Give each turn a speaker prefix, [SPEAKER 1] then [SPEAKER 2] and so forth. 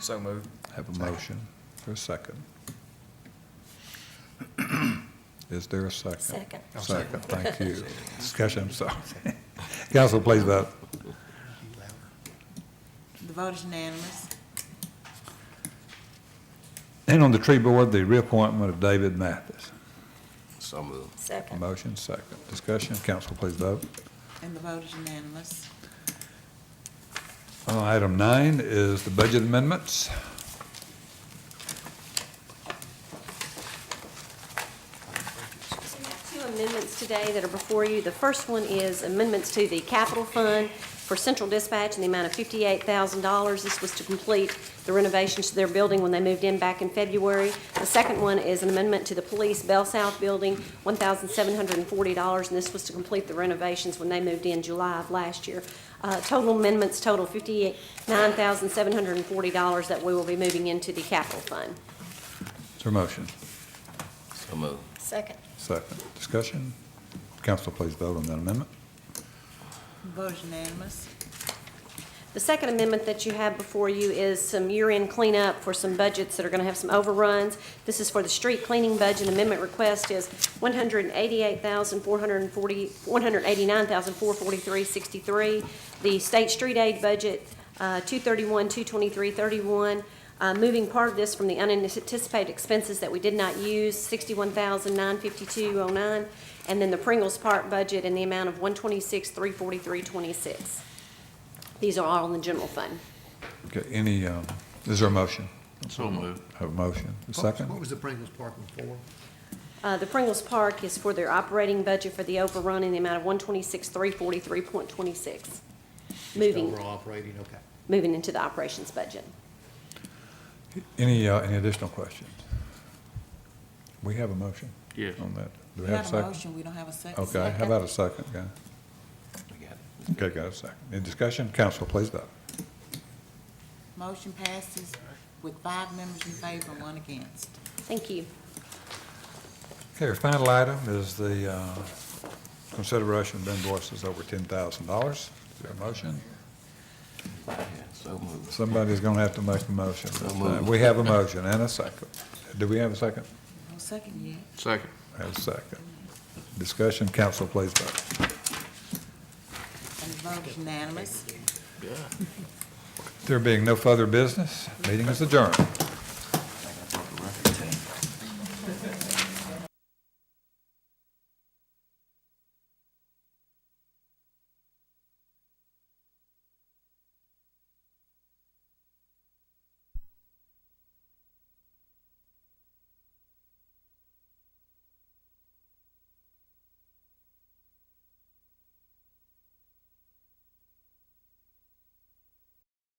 [SPEAKER 1] So moved.
[SPEAKER 2] Have a motion for a second. Is there a second?
[SPEAKER 3] Second.
[SPEAKER 1] Oh,
[SPEAKER 2] Second,
[SPEAKER 1] second.
[SPEAKER 2] thank you. Discussion, I'm sorry. Council, please vote.
[SPEAKER 4] The vote is unanimous.
[SPEAKER 2] And on the tree board, the reappointment of David Mathis.
[SPEAKER 5] So moved.
[SPEAKER 3] Second.
[SPEAKER 2] Motion second. Discussion, council, please vote.
[SPEAKER 4] And the vote is unanimous.
[SPEAKER 2] Uh, Item nine is the budget amendments.
[SPEAKER 3] So we have Two amendments today that are before you. The first one is amendments to the capital fund for central dispatch in the amount of fifty-eight thousand dollars. This was to complete the renovations to their building when they moved in back in February. The second one is an amendment to the police Bell South building, one thousand seven hundred and forty dollars, and this was to complete the renovations when they moved in July of last year. Uh, total amendments total fifty-nine thousand seven hundred and forty dollars that we will be moving into the capital fund.
[SPEAKER 2] Is there a motion?
[SPEAKER 5] So moved.
[SPEAKER 3] Second.
[SPEAKER 2] Second. Discussion, council, please vote on that amendment.
[SPEAKER 4] The vote is unanimous.
[SPEAKER 3] The second amendment that you have before you is some year-end cleanup for some budgets that are going to have some overruns. This is for the street cleaning budget. Amendment request is one hundred eighty-eight thousand four hundred forty, one hundred eighty-nine thousand four forty-three sixty-three. The state street aid budget, uh, two thirty-one, two twenty-three, thirty-one. Uh, moving part of this from the unanticipated expenses that we did not use, sixty-one thousand nine fifty-two oh nine. And then the Pringles Park budget in the amount of one twenty-six, three forty-three, twenty-six. These are all in the general fund.
[SPEAKER 2] Okay, any, um, is there a motion?
[SPEAKER 5] So moved.
[SPEAKER 2] Have a motion. A
[SPEAKER 6] What- What
[SPEAKER 2] second?
[SPEAKER 6] was the Pringles parking for?
[SPEAKER 3] Uh, The Pringles Park is for their operating budget for the overrun in the amount of one twenty-six, three forty-three point twenty-six. Moving,
[SPEAKER 6] Overall operating, okay.
[SPEAKER 3] moving into the operations budget.
[SPEAKER 2] Any, uh, any additional questions? We have a motion?
[SPEAKER 5] Yeah.
[SPEAKER 2] On that. Do
[SPEAKER 4] We
[SPEAKER 2] we have a
[SPEAKER 4] got a
[SPEAKER 2] second?
[SPEAKER 4] motion, we don't have a second.
[SPEAKER 2] Okay, how about a second, guys?
[SPEAKER 5] We got it.
[SPEAKER 2] Okay, got a second. Any discussion? Council, please vote.
[SPEAKER 4] Motion passes with five members in favor and one against.
[SPEAKER 3] Thank you.
[SPEAKER 2] Okay, our final item is the uh, consideration of invoices over ten thousand dollars. Is there a motion?
[SPEAKER 5] Yeah, So moved.
[SPEAKER 2] Somebody's gonna have to make a motion.
[SPEAKER 5] So moved.
[SPEAKER 2] We have a motion and a second. Do we have a second?
[SPEAKER 4] No second yet.
[SPEAKER 5] Second.
[SPEAKER 2] I Have a second. Discussion, council, please vote.
[SPEAKER 4] And the vote is unanimous.
[SPEAKER 2] There being no further business, meeting is adjourned.